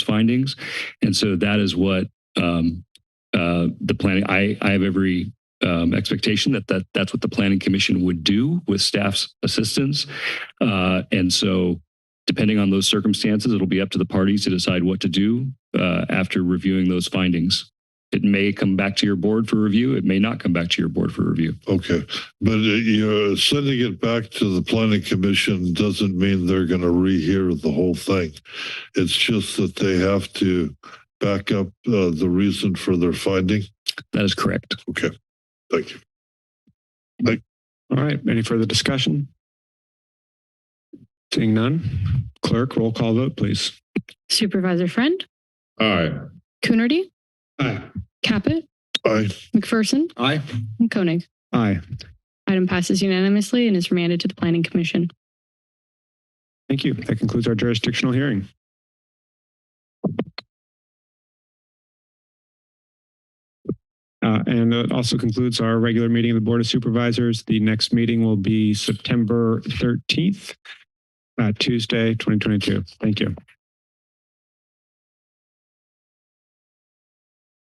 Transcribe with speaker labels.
Speaker 1: findings. And so that is what um, uh, the planning, I, I have every um, expectation that, that that's what the planning commission would do with staff's assistance. Uh, and so depending on those circumstances, it'll be up to the parties to decide what to do uh, after reviewing those findings. It may come back to your board for review. It may not come back to your board for review.
Speaker 2: Okay, but uh, you know, sending it back to the planning commission doesn't mean they're going to rehear the whole thing. It's just that they have to back up uh, the reason for their finding.
Speaker 1: That is correct.
Speaker 2: Okay, thank you.
Speaker 3: All right, any further discussion? Seeing none, clerk, roll call vote, please.
Speaker 4: Supervisor Friend,
Speaker 5: Aye.
Speaker 4: Coonerty,
Speaker 3: Aye.
Speaker 4: Caput,
Speaker 2: Aye.
Speaker 4: McPherson,
Speaker 5: Aye.
Speaker 4: and Koenig.
Speaker 3: Aye,
Speaker 4: Item passes unanimously and is remanded to the Planning Commission.
Speaker 3: thank you. That concludes our jurisdictional hearing. Uh, And that also concludes our regular meeting of the Board of Supervisors. The next meeting will be September 13th, uh, Tuesday, 2022. Thank you.